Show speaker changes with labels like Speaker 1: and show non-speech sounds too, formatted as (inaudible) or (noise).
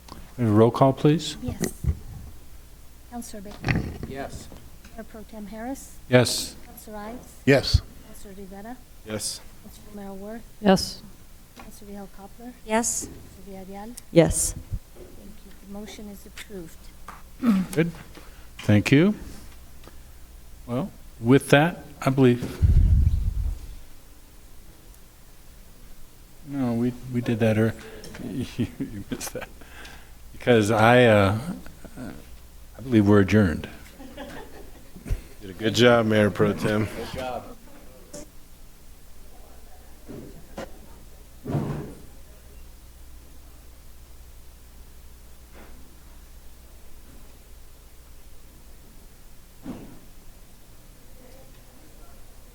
Speaker 1: A Roll call, please.
Speaker 2: Yes. Counselor Baker?
Speaker 3: Yes.
Speaker 2: Mayor Pro Tem Harris?
Speaker 1: Yes.
Speaker 2: Counselor Ives?
Speaker 4: Yes.
Speaker 2: Counselor Rivera?
Speaker 3: Yes.
Speaker 2: Counselor Romero Worth?
Speaker 5: Yes.
Speaker 2: Counselor Vihel Coppler?
Speaker 6: Yes.
Speaker 2: Counselor Villarreal?
Speaker 6: Yes.
Speaker 2: Thank you. The motion is approved.
Speaker 1: Good. Thank you. Well, with that, I believe. No, we, we did that, or (laughs) you missed that. Because I, uh, I believe we're adjourned.
Speaker 4: Did a good job, Mayor Pro Tem.
Speaker 3: Good job.